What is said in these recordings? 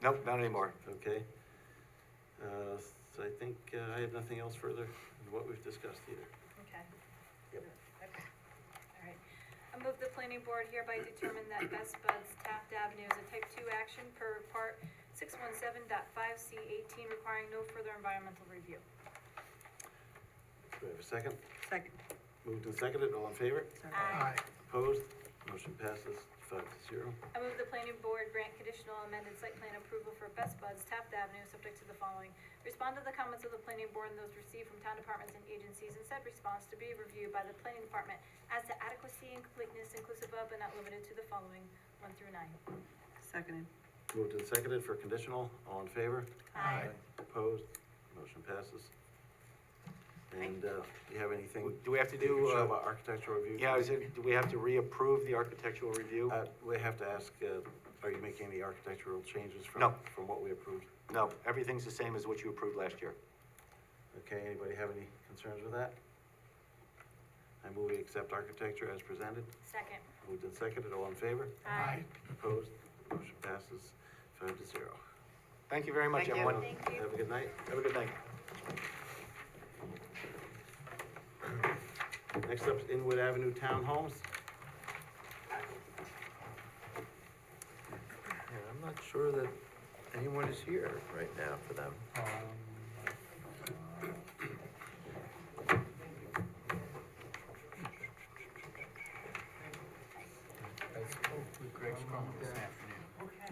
Nope, not anymore. Okay. Uh, so I think uh, I have nothing else further than what we've discussed either. Okay. Yep. Okay. All right. I move the planning board hereby determine that Best Buds Taft Avenue is a type two action per part six one seven dot five C eighteen requiring no further environmental review. Do we have a second? Second. Moved and seconded, all in favor? Sorry. Aye. Opposed? Motion passes five to zero. I move the planning board grant conditional amended site plan approval for Best Buds Taft Avenue, subject to the following. Respond to the comments of the planning board and those received from town departments and agencies, and said response to be reviewed by the planning department as to adequacy and completeness inclusive of but not limited to the following, one through nine. Seconded. Moved and seconded for conditional, all in favor? Aye. Opposed? Motion passes. And, uh, do you have anything? Do we have to that you do, can show uh, about architectural review? Yeah, is it, do we have to reapprove the architectural review? Uh, we have to ask, uh, are you making any architectural changes from? No. From what we approved? No, everything's the same as what you approved last year. Okay, anybody have any concerns with that? I move we accept architecture as presented. Second. Moved and seconded, all in favor? Aye. Opposed? Motion passes five to zero. Thank you very much, Thank you. everyone. Thank you. Have a good night. Have a good night. Next up is Inwood Avenue Townhomes. And I'm not sure that anyone is here right now for them.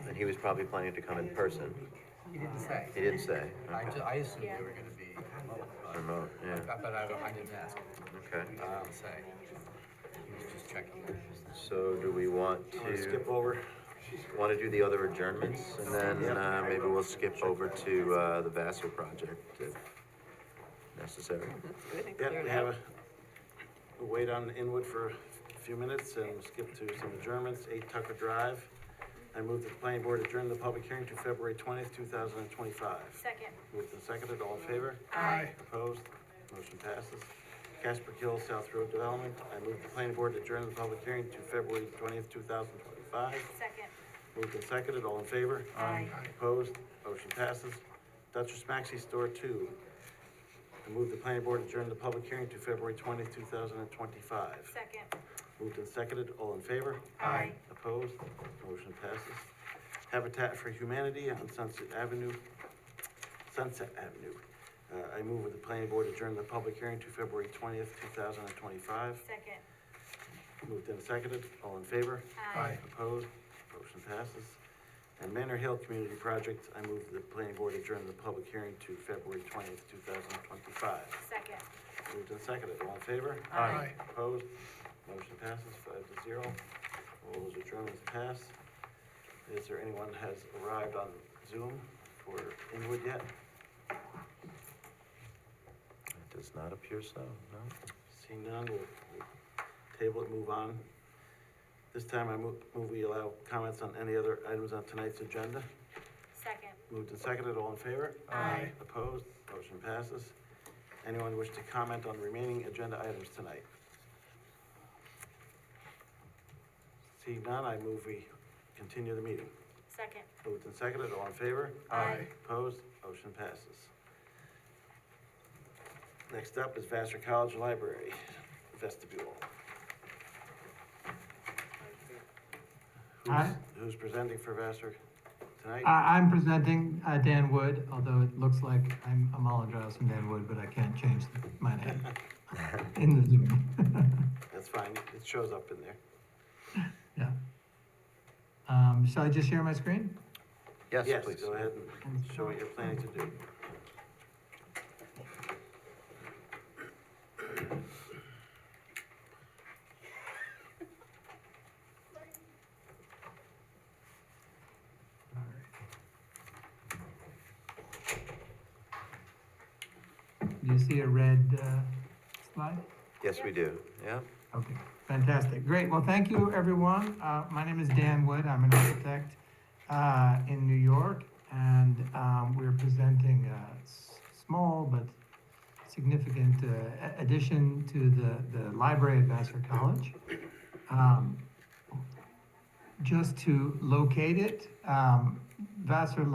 And he was probably planning to come in person. He didn't say. He didn't say. I Okay. ju- I assumed they were gonna be, uh, Remote, yeah, but I, I didn't ask. okay. He didn't say. He was just checking. So do we want Wanna to, Skip over. want to do the other adjournments? And then uh, maybe we'll skip over to uh, the Vassar project if necessary. Good and Yeah, clear we now. have a, we'll wait on Inwood for a few minutes and we'll skip to some adjournments, eight Tucker Drive. I move that the planning board adjourn the public hearing to February twentieth, two thousand and twenty-five. Second. Moved and seconded, all in favor? Aye. Opposed? Motion passes. Casper Hill South Road Development, I move the planning board to adjourn the public hearing to February twentieth, two thousand twenty-five. Second. Moved and seconded, all in favor? Aye. Opposed? Motion passes. Duchess Maxi Store Two. I move the planning board adjourn the public hearing to February twentieth, two thousand and twenty-five. Second. Moved and seconded, all in favor? Aye. Opposed? Motion passes. Habitat for Humanity on Sunset Avenue, Sunset Avenue. Uh, I move with the planning board adjourn the public hearing to February twentieth, two thousand and twenty-five. Second. Moved and seconded, all in favor? Aye. Opposed? Motion passes. And Manor Hill Community Project, I move the planning board adjourn the public hearing to February twentieth, two thousand twenty-five. Second. Moved and seconded, all in favor? Aye. Opposed? Motion passes five to zero. All those adjournments pass. Is there anyone that has arrived on Zoom for Inwood yet? It Does not appear so, no? Seeing none, we'll we'll table it, move on. This time I move, move we allow comments on any other items on tonight's agenda. Second. Moved and seconded, all in favor? Aye. Opposed? Motion passes. Anyone wish to comment on remaining agenda items tonight? Seeing none, I move we continue the meeting. Second. Moved and seconded, all in favor? Aye. Opposed? Motion passes. Next up is Vassar College Library vestibule. Who's- Aye. Who's presenting for Vassar tonight? I, I'm presenting uh, Dan Wood, although it looks like I'm apologizing Dan Wood, but I can't change my name in the Zoom. That's fine, it shows up in there. yeah. Um, shall I just share my screen? Yes, please. Go ahead and show what you're planning to do. All right. Do you see a red uh, slide? Yes, we do, yeah. Okay, fantastic. Great. Well, thank you, everyone. Uh, my name is Dan Wood. I'm an architect uh, in New York, and um, we're presenting a s- small but significant uh, a- addition to the, the library at Vassar College. Um, just to locate it, um, Vassar